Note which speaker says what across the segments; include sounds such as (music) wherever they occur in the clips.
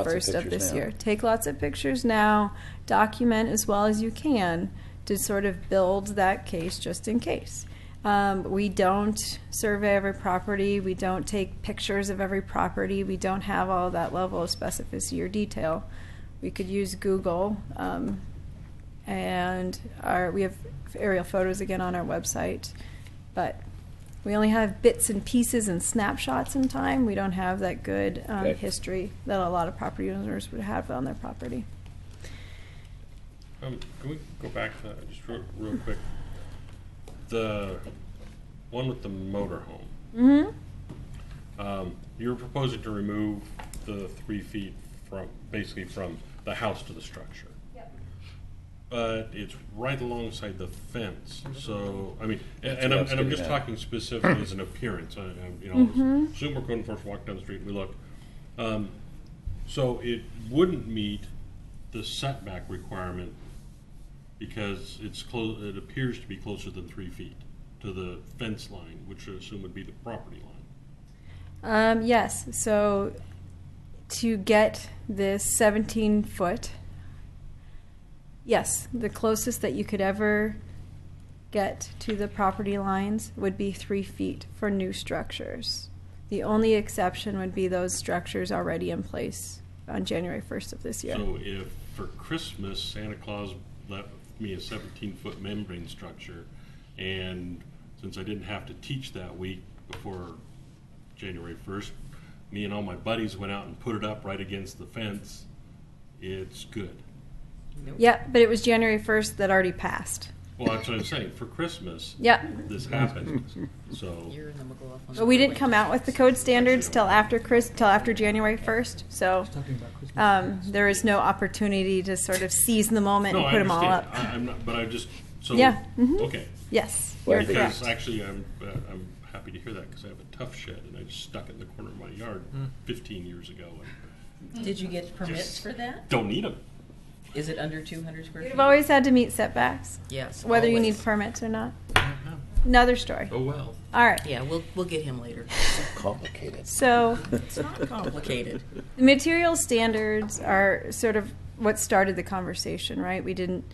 Speaker 1: Lots
Speaker 2: first of
Speaker 1: pictures
Speaker 2: this
Speaker 1: now.
Speaker 2: year. Take lots of pictures now, document as well as you can to sort of build that case just in case. Um, we don't survey every property, we don't take pictures of every property, we don't have all that level of specificity or detail. We could use Google, um, and our, we have aerial photos again on our website, but we only have bits and pieces and snapshots in time. We don't have that good um,
Speaker 1: Okay.
Speaker 2: history that a lot of property owners would have on their property.
Speaker 3: Um, can we go back to, just real, real quick, the one with the motorhome?
Speaker 2: Mm-hmm.
Speaker 3: Um, you're proposing to remove the three feet from, basically from the house to the structure.
Speaker 2: Yep.
Speaker 3: But it's right alongside the fence, so, I mean, a-
Speaker 1: That's
Speaker 3: and
Speaker 1: what I
Speaker 3: I'm,
Speaker 1: was
Speaker 3: and I'm
Speaker 1: getting
Speaker 3: just
Speaker 1: at.
Speaker 3: talking specifically as an appearance, I, I, you know,
Speaker 2: Mhm.
Speaker 3: assume we're going for a walk down the street, we look. Um, so it wouldn't meet the setback requirement because it's close, it appears to be closer than three feet to the fence line, which I assume would be the property line.
Speaker 2: Um, yes. So to get this 17 foot, yes, the closest that you could ever get to the property lines would be three feet for new structures. The only exception would be those structures already in place on January 1st of this year.
Speaker 3: So if for Christmas Santa Claus left me a 17 foot membrane structure, and since I didn't have to teach that week before January 1st, me and all my buddies went out and put it up right against the fence. It's good.
Speaker 2: Yeah, but it was January 1st that already passed.
Speaker 3: Well, that's what I'm saying. For Christmas,
Speaker 2: Yeah.
Speaker 3: this happened. So
Speaker 4: You're in the McLaughlin.
Speaker 2: But we didn't come out with the code standards till after Chris, till after January 1st, so um, there is no opportunity to sort of seize the moment
Speaker 3: no,
Speaker 2: and
Speaker 3: I
Speaker 2: put them all
Speaker 3: understand.
Speaker 2: up.
Speaker 3: I, I'm not, but I just so
Speaker 2: Yeah, mhm.
Speaker 3: okay.
Speaker 2: Yes,
Speaker 1: Well,
Speaker 2: you're
Speaker 3: because
Speaker 2: correct.
Speaker 3: actually, I'm uh, I'm happy to hear that because I have a tough shed and I just stuck it in the corner of my yard 15 years ago and
Speaker 4: Did you get permits
Speaker 3: Just-
Speaker 4: for that?
Speaker 3: don't need them.
Speaker 4: Is it under two hundred square feet?
Speaker 2: You've always had to meet setbacks,
Speaker 4: Yes.
Speaker 2: whether you need
Speaker 4: always.
Speaker 2: permits or not.
Speaker 3: Mm-hmm.
Speaker 2: Another story.
Speaker 5: Oh, well.
Speaker 2: All right. (laughs)
Speaker 4: Yeah, we'll, we'll get him later.
Speaker 1: Complicated.
Speaker 2: So
Speaker 1: It's
Speaker 4: not complicated.
Speaker 2: the material standards are sort of what started the conversation, right? We didn't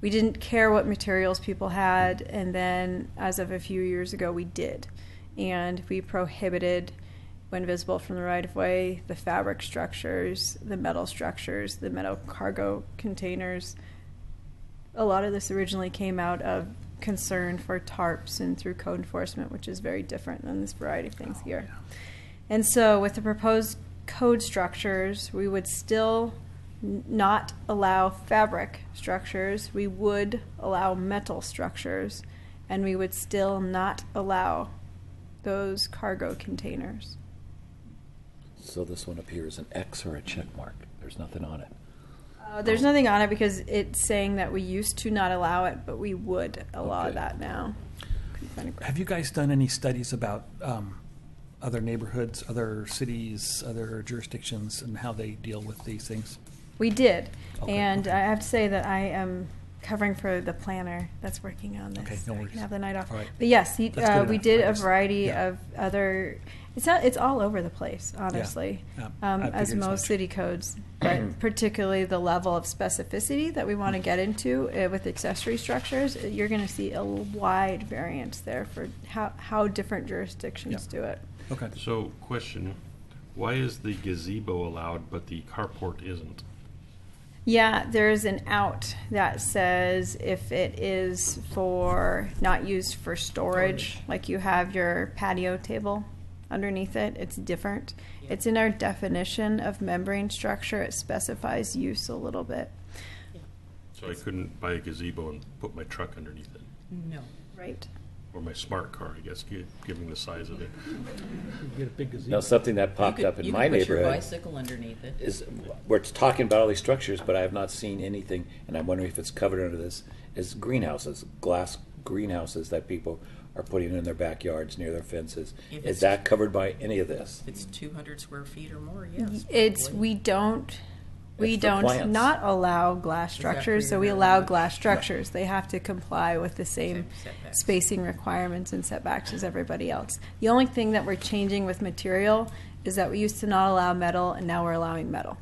Speaker 2: we didn't care what materials people had, and then as of a few years ago, we did, and we prohibited. When visible from the right of way, the fabric structures, the metal structures, the metal cargo containers. A lot of this originally came out of concern for tarps and through code enforcement, which is very different than this variety of things here. And so, with the proposed code structures, we would still n- not allow fabric structures, we would allow metal structures, and we would still not allow those cargo containers.
Speaker 1: So this one appears an X or a check mark. There's nothing on it.
Speaker 2: Uh, there's
Speaker 5: Oh.
Speaker 2: nothing on it because it's saying that we used to not allow it, but we would allow
Speaker 1: Okay.
Speaker 2: that now. Kind of
Speaker 5: Have you guys done any studies about um, other neighborhoods, other cities, other jurisdictions, and how they deal with these things?
Speaker 2: We did,
Speaker 5: Okay,
Speaker 2: and
Speaker 5: okay.
Speaker 2: I have to say that I am covering for the planner that's working on this.
Speaker 5: Okay, no
Speaker 2: so I can
Speaker 5: worries.
Speaker 2: have the night off.
Speaker 5: All right.
Speaker 2: But yes, he,
Speaker 5: That's
Speaker 2: uh,
Speaker 5: good
Speaker 2: we
Speaker 5: enough.
Speaker 2: did
Speaker 5: I
Speaker 2: a
Speaker 5: just-
Speaker 2: variety
Speaker 5: yeah.
Speaker 2: of other. It's not, it's all over the place, honestly,
Speaker 5: Yeah,
Speaker 2: um, as
Speaker 5: I figured as
Speaker 2: most
Speaker 5: much.
Speaker 2: city codes,
Speaker 5: (clears throat)
Speaker 2: but particularly the level of specificity that we want to get into uh, with accessory structures. uh, You're going to see a wide variance there for how how different jurisdictions
Speaker 5: Yeah.
Speaker 2: do it.
Speaker 5: Okay.
Speaker 3: So, question: Why is the gazebo allowed but the carport isn't?
Speaker 2: Yeah, there's an out that says if it is for not used for storage, like you have your patio table underneath it, it's different.
Speaker 4: Yeah.
Speaker 2: It's in our definition of membrane structure, it specifies use a little bit.
Speaker 3: So I couldn't buy a gazebo and put my truck underneath it,
Speaker 4: No.
Speaker 2: Right.
Speaker 3: or my smart car, I guess, gi- given the size of it.
Speaker 1: Now, something that popped
Speaker 4: You could-
Speaker 1: up in
Speaker 4: you
Speaker 1: my
Speaker 4: could put your
Speaker 1: neighborhood
Speaker 4: Bicycle underneath it.
Speaker 1: is, we're talking about all these structures, but I have not seen anything, and I'm wondering if it's covered under this, is greenhouses, glass greenhouses that people are putting in their backyards near their fences.
Speaker 4: If
Speaker 1: Is
Speaker 4: it's-
Speaker 1: that covered by any of this?
Speaker 4: If It's two hundred square feet or more, yes.
Speaker 2: It's,
Speaker 4: probably.
Speaker 2: we don't, we
Speaker 1: It's for
Speaker 2: don't
Speaker 1: plants.
Speaker 2: not allow glass
Speaker 4: Is that for
Speaker 2: structures, so
Speaker 4: your
Speaker 2: we allow
Speaker 4: marijuana?
Speaker 2: glass structures. They have to comply with the same
Speaker 4: Same setbacks.
Speaker 2: spacing requirements and setbacks as everybody else. The only thing that we're changing with material is that we used to not allow metal, and now we're allowing metal.